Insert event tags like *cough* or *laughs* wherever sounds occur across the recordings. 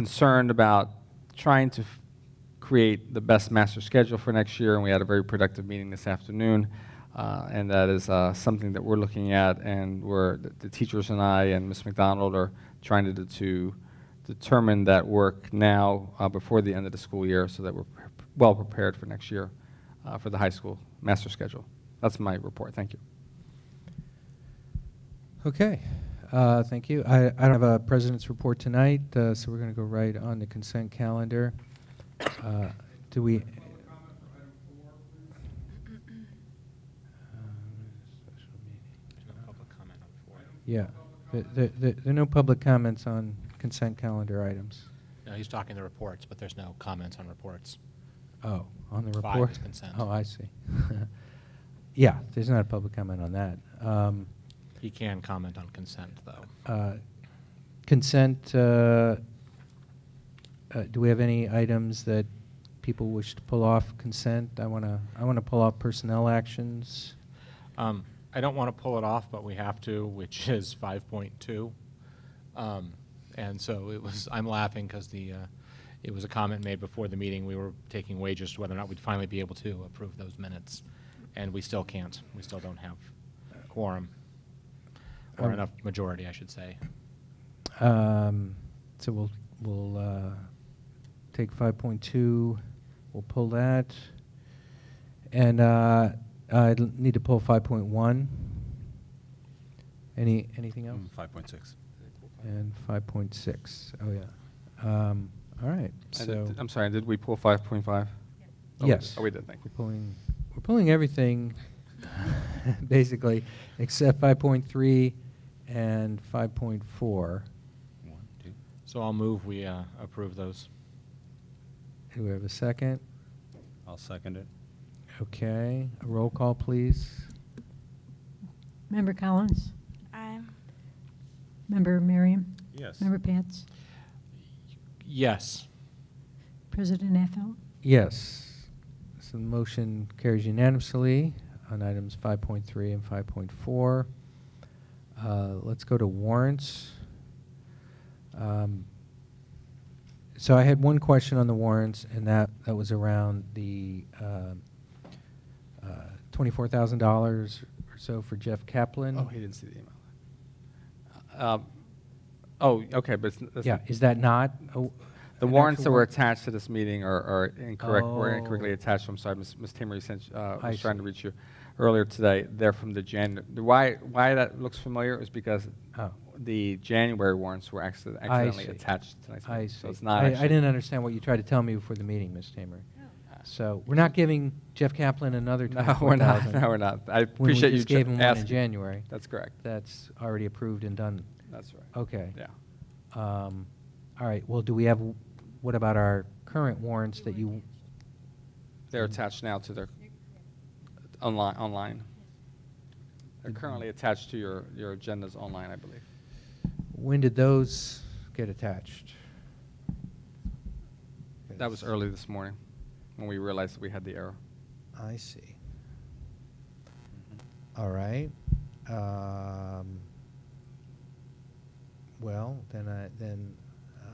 concerned about trying to f- create the best master schedule for next year, and we had a very productive meeting this afternoon. Uh, and that is uh, something that we're looking at, and we're, the- the teachers and I and Ms. McDonald are trying to, de- to determine that work now uh, before the end of the school year so that we're pre- well prepared for next year uh, for the high school master schedule. That's my report. Thank you. Okay, uh, thank you. I, I don't have a president's report tonight, uh, so we're going to go right on the consent calendar. Uh, Do we? um, Yeah, there, there- there there are no public comments on consent calendar items. No, he's talking the reports, but there's no comments on reports. Oh, on the Five report? is consent. Oh, I see. *laughs* Yeah, there's not a public comment on that. Um, He can comment on consent, though. Uh, Consent, uh, uh, do we have any items that people wish to pull off consent? I want to, I want to pull off personnel actions. Um, I don't want to pull it off, but we have to, which *laughs* is 5.2. Um, And so it was, I'm laughing because the, uh, it was a comment made before the meeting, we were taking wages to whether or not we'd finally be able to approve those minutes. And we still can't. We still don't have quorum, or Um, enough majority, I should say. Um, So we'll, we'll uh, take 5.2, we'll pull that. And uh, I need to pull 5.1. Any, anything else? Mm, Five point six. And 5.6, oh, yeah. Um, All right, And so. um, did- I'm sorry, did we pull 5.5? Oh, we did. Yes. Oh, we did, thank you. We're pulling, we're pulling everything, *laughs* basically, except 5.3 and 5.4. One, two. So I'll move we uh, approve those. Do we have a second? I'll second it. Okay, a roll call, please. Member Collins? Aye. Member Merriam? Yes. Member Pats? Yes. President Affeld? Yes. So the motion carries unanimously on items 5.3 and 5.4. Uh, Let's go to warrants. Um, So I had one question on the warrants, and that, that was around the um, uh, $24,000 or so for Jeff Kaplan. Oh, he didn't see the email. Um, Oh, okay, but it's n- that's Yeah, n- is that not? a- The an warrants actual that were warrant? attached to this meeting are, are incorrect, were Oh. incorrectly attached, I'm sorry, Ms. Ms. Tamery sent, uh, I was trying to see. reach you earlier today, they're from the Jan, the why, why that looks familiar is because Oh. the January warrants were accident- I accidentally see. attached to tonight's I meeting, see. so it's not I- actually. *laughs* I didn't understand what you tried to tell me before the meeting, Ms. Tamer. So we're not giving Jeff Kaplan *laughs* another No, we're not, 24,000. no, we're not, I When we appreciate you just ju- gave him one in asking. January. That's correct, That's already approved and done. that's right, Okay. yeah. Um, All right, well, do we have, what about our current warrants that you, They're attached now to their, online, online. They're Mhm. currently attached to your, your agendas online, I believe. when did those get attached? That was early this morning when we realized that we had the error. I see. All right. Um, Well, then I, then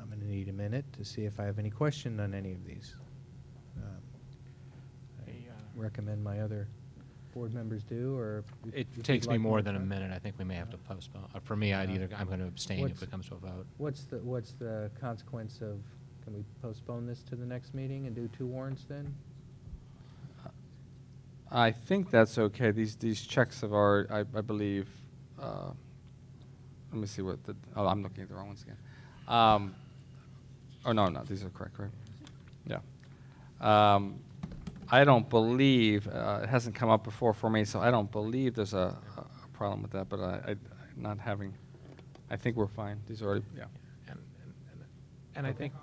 I'm gonna need a minute to see if I have any question on any of these. Um, I Hey, uh, Recommend my other board members do, or? if- It if you'd takes me like more to- than a minute. I think we may have to postpone. Uh, For me, I'd Yeah. either, I'm going to abstain if What's- it comes to a vote. What's the, what's the consequence of, can we postpone this to the next meeting and do two warrants then? I think that's okay. These, these checks have already, I, I believe, uh, let me see what the, oh, I'm looking at the wrong ones again. Um, oh, no, no, these are correct, right? Yeah. Um, I don't believe, uh, it hasn't come up before for me, so I don't believe there's a, a problem with that, but I, I, not having, I think we're fine. These are already, yeah. And- and- and- And I think,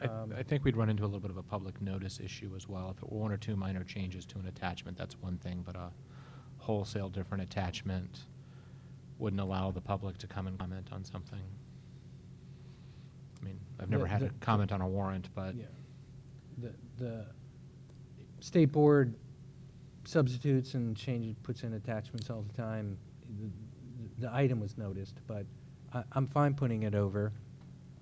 I- Um, I I think we'd run into a little bit of a public notice issue as well. If it were one or two minor changes to an attachment, that's one thing, but a wholesale different attachment wouldn't allow the public to come and comment on something. I mean, I've never The- had the- a comment on a warrant, but Yeah. The, the state board substitutes and changes, puts in attachments all the time. The- The item was noticed, but I, I'm fine putting it over.